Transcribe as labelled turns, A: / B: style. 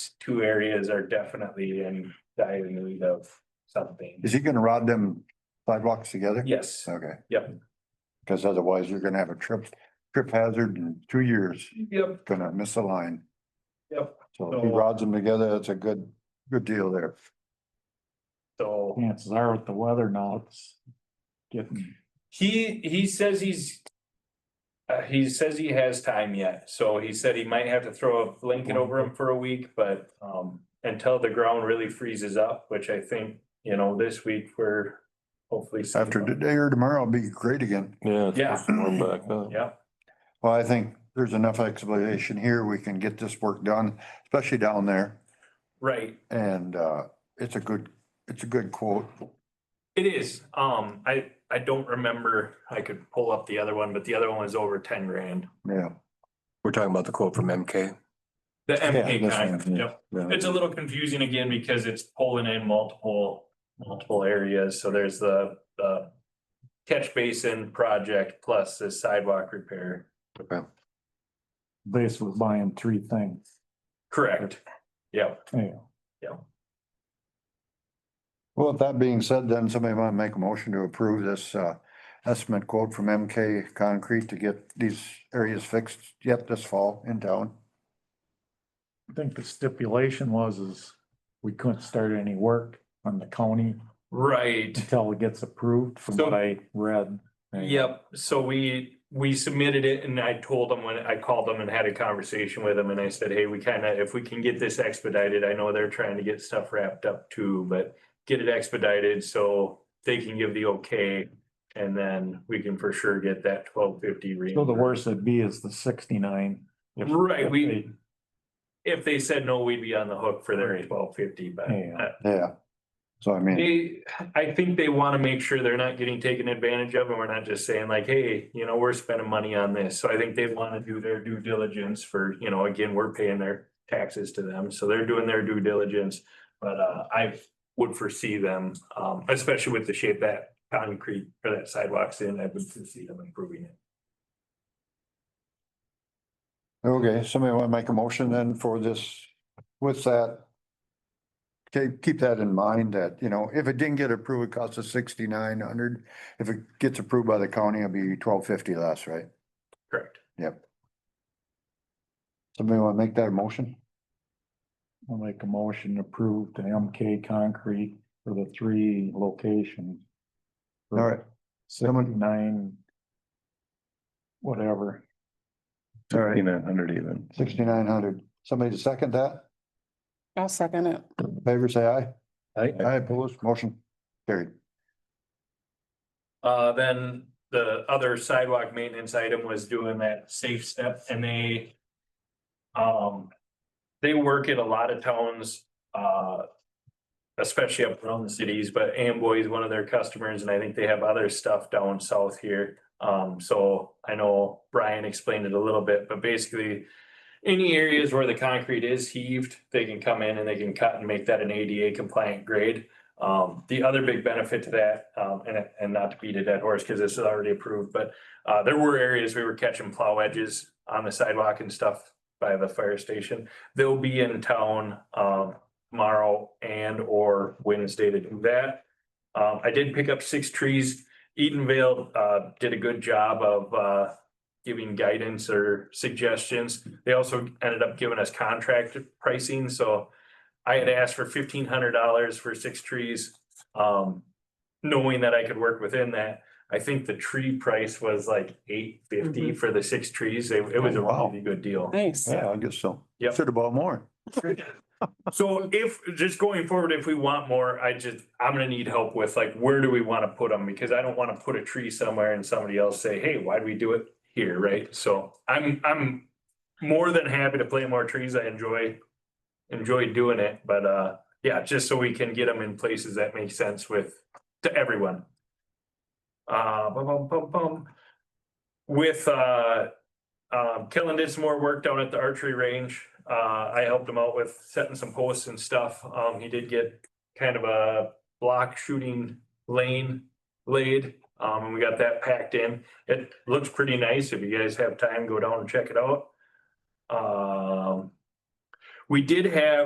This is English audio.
A: two areas are definitely in dire need of something.
B: Is he gonna rod them sidewalks together?
A: Yes,
B: Okay.
A: Yep.
B: Cause otherwise you're gonna have a trip, trip hazard in two years,
A: yep,
B: gonna miss a line.
A: yep,
B: So if he rods them together, that's a good, good deal there.
A: so. Hmm.
C: Chances are with the weather now, it's getting,
A: He, he says he's. Uh, he says he has time yet, so he said he might have to throw a blanket over him for a week, but, um, until the ground really freezes up, which I think, you know, this week we're. Hopefully. seeing-
B: After today or tomorrow, it'll be great again.
D: Yeah. it's
A: Yeah.
D: supposed to warm back up.
A: Yeah,
B: Well, I think there's enough explanation here. We can get this work done, especially down there.
A: right,
B: And, uh, it's a good, it's a good quote.
A: it is, um, I, I don't remember, I could pull up the other one, but the other one was over ten grand.
B: Yeah.
D: We're talking about the quote from MK.
A: The
B: Yeah,
A: MK
B: that's
A: kind,
B: fine, yeah.
A: yep. It's a little confusing again because it's pulling in multiple, multiple areas, so there's the, the. Catch basin project plus the sidewalk repair.
C: basically buying three things.
A: Correct. Yep,
C: Yeah.
B: Well, with that being said, then somebody might make a motion to approve this uh estimate quote from MK Concrete to get these areas fixed yet this fall in town.
C: I think the stipulation was is we couldn't start any work on the county
A: right.
C: until it gets approved from what
A: So-
C: I read.
A: Yep, so we, we submitted it and I told them when I called them and had a conversation with them and I said, hey, we kind of, if we can get this expedited, I know they're trying to get stuff wrapped up too, but get it expedited so they can give the okay. And then we can for sure get that twelve fifty.
C: So the worst it'd be is the sixty-nine. if-
A: Right,
C: if
A: we-
C: they-
A: If they said no, we'd be on the hook for their twelve fifty, but
C: Yeah.
A: uh,
B: Yeah. So I mean,
A: They, I think they want to make sure they're not getting taken advantage of and we're not just saying like, hey, you know, we're spending money on this. So I think they want to do their due diligence for, you know, again, we're paying their taxes to them. So they're doing their due diligence. But uh, I would foresee them, um, especially with the shape that concrete or that sidewalks in, I would foresee them improving it.
B: okay, somebody want to make a motion then for this, with that? Keep, keep that in mind that, you know, if it didn't get approved, it costs us sixty-nine hundred. If it gets approved by the county, it'll be twelve fifty less, right?
A: Correct.
B: Yep. Somebody want to make that a motion?
C: I'll make a motion to approve the MK Concrete for the three locations.
B: All right.
C: Seventy-nine. Whatever.
B: All right.
D: Sixty-nine hundred even.
B: Sixty-nine hundred. Somebody to second that?
E: I'll second it.
B: Favor say aye.
D: Aye.
B: Aye, opposed, motion carried.
A: Uh, then the other sidewalk maintenance item was doing that safe step and they. Um, they work in a lot of towns, uh. Especially up around the cities, but Amboy is one of their customers and I think they have other stuff down south here. Um, so I know Brian explained it a little bit, but basically. Any areas where the concrete is heaved, they can come in and they can cut and make that an ADA compliant grade. Um, the other big benefit to that, um, and, and not to beat a dead horse, because this is already approved, but, uh, there were areas we were catching plow edges on the sidewalk and stuff by the fire station. They'll be in town, um, tomorrow and or Wednesday to do that. Um, I did pick up six trees. Edenvale, uh, did a good job of, uh, giving guidance or suggestions. They also ended up giving us contract pricing, so I had asked for fifteen hundred dollars for six trees. Um, knowing that I could work within that, I think the tree price was like eight fifty for the six trees. It, it was a
B: Mm-hmm. Oh, wow.
A: really good deal.
E: Nice.
B: Yeah, I guess so.
A: Yep.
B: Should have bought more.
A: So if, just going forward, if we want more, I just, I'm gonna need help with like, where do we wanna put them? Because I don't wanna put a tree somewhere and somebody else say, hey, why'd we do it here, right? So I'm, I'm more than happy to plant more trees. I enjoy, enjoy doing it, but uh, yeah, just so we can get them in places that make sense with, to everyone. Uh, bum, bum, bum, bum. With uh, um, Kellen did some more work down at the archery range. Uh, I helped him out with setting some posts and stuff. Um, he did get kind of a block shooting lane laid. Um, and we got that packed in. It looks pretty nice. If you guys have time, go down and check it out. Um, we did have